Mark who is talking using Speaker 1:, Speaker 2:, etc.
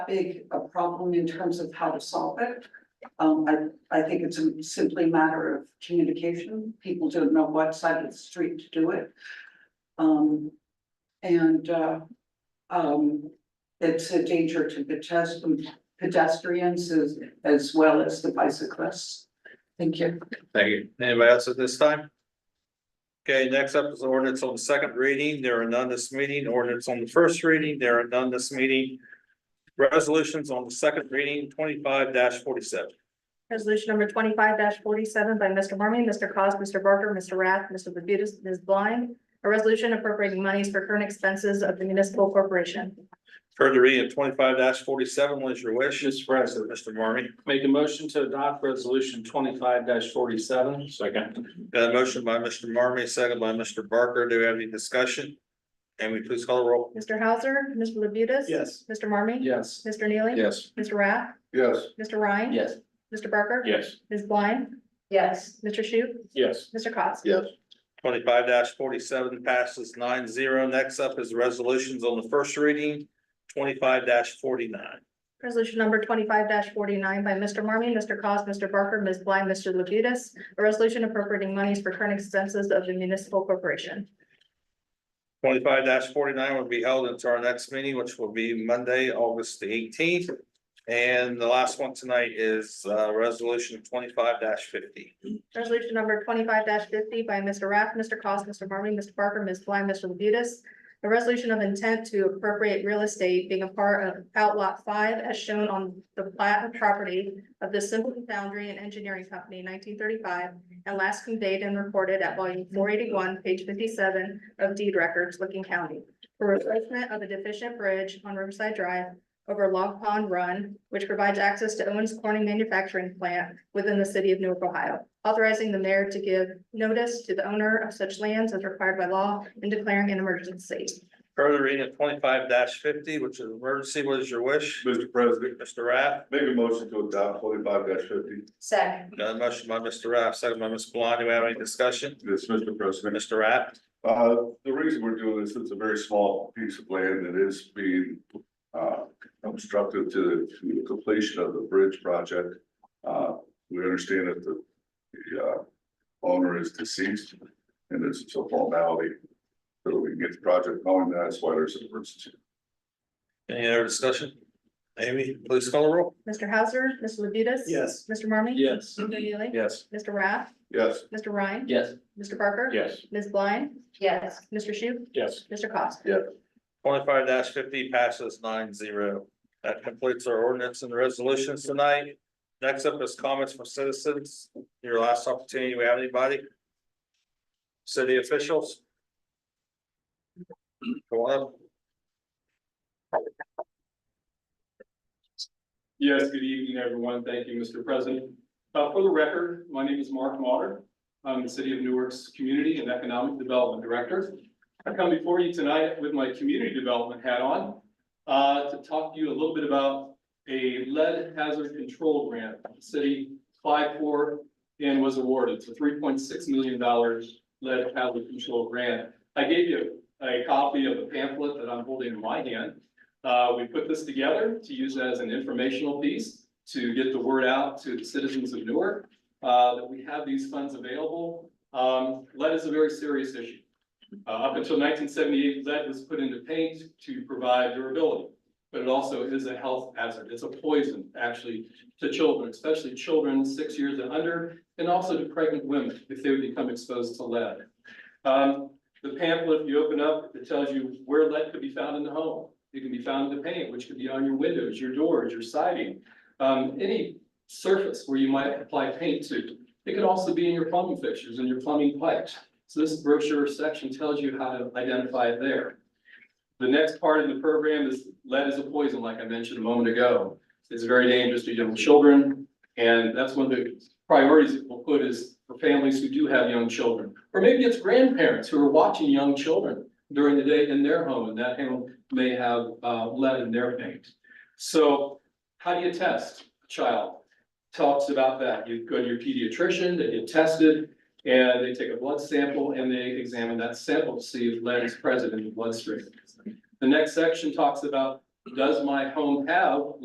Speaker 1: big a problem in terms of how to solve it. Um, I, I think it's a- simply a matter of communication. People don't know what side of the street to do it. Um, and, uh, um, it's a danger to pedestrians, pedestrians as, as well as the bicyclists. Thank you.
Speaker 2: Thank you. Anybody else at this time? Okay, next up is ordinance on the second reading. There are none this meeting. Ordinance on the first reading. There are none this meeting. Resolutions on the second reading, twenty-five forty-seven.
Speaker 3: Resolution number twenty-five forty-seven by Mr. Marmy, Mr. Cos, Mr. Barker, Mr. Rath, Mr. Labutus, Ms. Blind. A resolution appropriating monies for current expenses of the municipal corporation.
Speaker 2: Further reading of twenty-five forty-seven. What is your wish?
Speaker 4: Mr. President,
Speaker 2: Mr. Marmy,
Speaker 4: make a motion to adopt resolution twenty-five forty-seven. Second.
Speaker 2: got a motion by Mr. Marmy, second by Mr. Barker. Do we have any discussion? Amy, please call the roll.
Speaker 3: Mr. Hauser, Mr. Labutus.
Speaker 4: Yes.
Speaker 3: Mr. Marmy.
Speaker 4: Yes.
Speaker 3: Mr. Neely.
Speaker 4: Yes.
Speaker 3: Mr. Rath,
Speaker 4: Yes.
Speaker 3: Mr. Ryan.
Speaker 4: Yes.
Speaker 3: Mr. Barker.
Speaker 4: Yes.
Speaker 3: Ms. Blind. Yes. Mr. Shu,
Speaker 4: Yes.
Speaker 3: Mr. Cos.
Speaker 4: Yes.
Speaker 2: Twenty-five forty-seven passes nine zero. Next up is resolutions on the first reading, twenty-five forty-nine.
Speaker 3: Resolution number twenty-five forty-nine by Mr. Marmy, Mr. Cos, Mr. Barker, Ms. Blind, Mr. Labutus. A resolution appropriating monies for current expenses of the municipal corporation.
Speaker 2: Twenty-five forty-nine will be held until our next meeting, which will be Monday, August the eighteenth. And the last one tonight is uh resolution twenty-five fifty.
Speaker 3: Resolution number twenty-five fifty by Mr. Rath, Mr. Cost, Mr. Marmy, Mr. Barker, Ms. Blind, Mr. Labutus. A resolution of intent to appropriate real estate being a part of outlot five as shown on the plat of property of the Simpleton Foundry and Engineering Company nineteen thirty-five and last conveyed and recorded at volume four eighty-one, page fifty-seven of deed records, Licking County. For replacement of a deficient bridge on Riverside Drive over Log Pond Run, which provides access to Owens Corning Manufacturing Plant within the city of Newark, Ohio. Authorizing the mayor to give notice to the owner of such lands as required by law and declaring an emergency.
Speaker 2: Further reading of twenty-five fifty, which is emergency, what is your wish?
Speaker 5: Mr. President,
Speaker 2: Mr. Rath,
Speaker 5: make a motion to adopt twenty-five fifty.
Speaker 3: Second.
Speaker 2: got a motion by Mr. Rath, second by Ms. Blind. Do we have any discussion?
Speaker 5: Yes, Mr. President.
Speaker 2: Mr. Rath,
Speaker 5: Uh, the reason we're doing this, it's a very small piece of land that is being, uh, obstructive to to the completion of the bridge project. Uh, we understand that the, the, uh, owner is deceased and there's a formality. So we can get the project going, that's why there's an emergency.
Speaker 2: any other discussion? Amy, please call the roll.
Speaker 3: Mr. Hauser, Mr. Labutus.
Speaker 4: Yes.
Speaker 3: Mr. Marmy.
Speaker 4: Yes.
Speaker 3: Mr. Neely.
Speaker 4: Yes.
Speaker 3: Mr. Rath,
Speaker 5: Yes,
Speaker 3: Mr. Ryan.
Speaker 4: Yes.
Speaker 3: Mr. Barker.
Speaker 4: Yes.
Speaker 3: Ms. Blind. Yes. Mr. Shu,
Speaker 4: Yes.
Speaker 3: Mr. Cost.
Speaker 2: Twenty-five fifty passes nine zero. That completes our ordinance and resolutions tonight. Next up is comments from citizens. Your last opportunity. We have anybody? City officials? Go on up.
Speaker 6: Yes, good evening, everyone. Thank you, Mr. President. Uh, for the record, my name is Mark Mauder. I'm the City of Newark's Community and Economic Development Director. I come before you tonight with my community development hat on, uh, to talk to you a little bit about a lead hazard control grant the city applied for and was awarded. It's a three point six million dollars lead hazard control grant. I gave you a copy of the pamphlet that I'm holding in my hand. Uh, we put this together to use as an informational piece to get the word out to the citizens of Newark, uh, that we have these funds available. Um, lead is a very serious issue. Uh, up until nineteen seventy-eight, lead was put into paint to provide durability. But it also is a health hazard. It's a poison, actually, to children, especially children six years and under, and also to pregnant women if they would become exposed to lead. Um, the pamphlet, if you open up, it tells you where lead could be found in the home. It can be found in the paint, which could be on your windows, your doors, your siding, um, any surface where you might apply paint to. It could also be in your plumbing fixtures and your plumbing pipes. So this brochure section tells you how to identify it there. The next part of the program is lead is a poison, like I mentioned a moment ago. It's very dangerous to young children, and that's one of the priorities that we'll put is for families who do have young children. Or maybe it's grandparents who are watching young children during the day in their home, and that home may have uh, lead in their paint. So how do you test a child? Talks about that. You go to your pediatrician, they get tested, and they take a blood sample and they examine that sample to see if lead is present in the bloodstream. The next section talks about does my home have